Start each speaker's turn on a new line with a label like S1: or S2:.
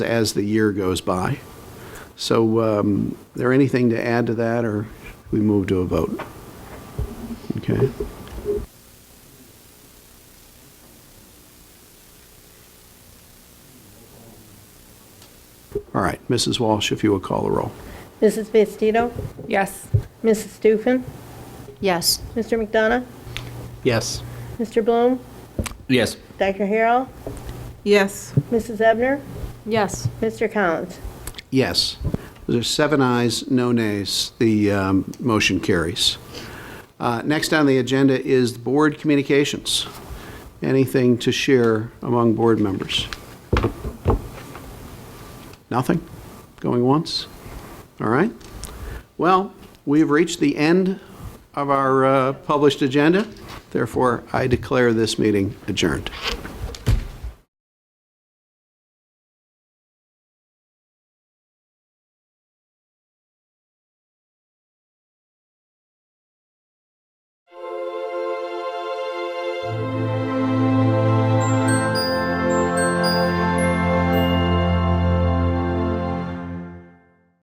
S1: as the year goes by. So um, there anything to add to that, or we move to a vote? Okay. All right, Mrs. Walsh, if you would call the roll.
S2: Mrs. Bastido?
S3: Yes.
S2: Mrs. Stufen?
S4: Yes.
S2: Mr. McDonough?
S5: Yes.
S2: Mr. Bloom?
S5: Yes.
S2: Dr. Harrell?
S3: Yes.
S2: Mrs. Ebner?
S4: Yes.
S2: Mr. Collins?
S1: Yes. There's seven ayes, no nays. The um, motion carries. Uh, Next on the agenda is board communications. Anything to share among board members? Nothing? Going once? All right. Well, we have reached the end of our uh, published agenda. Therefore, I declare this meeting adjourned.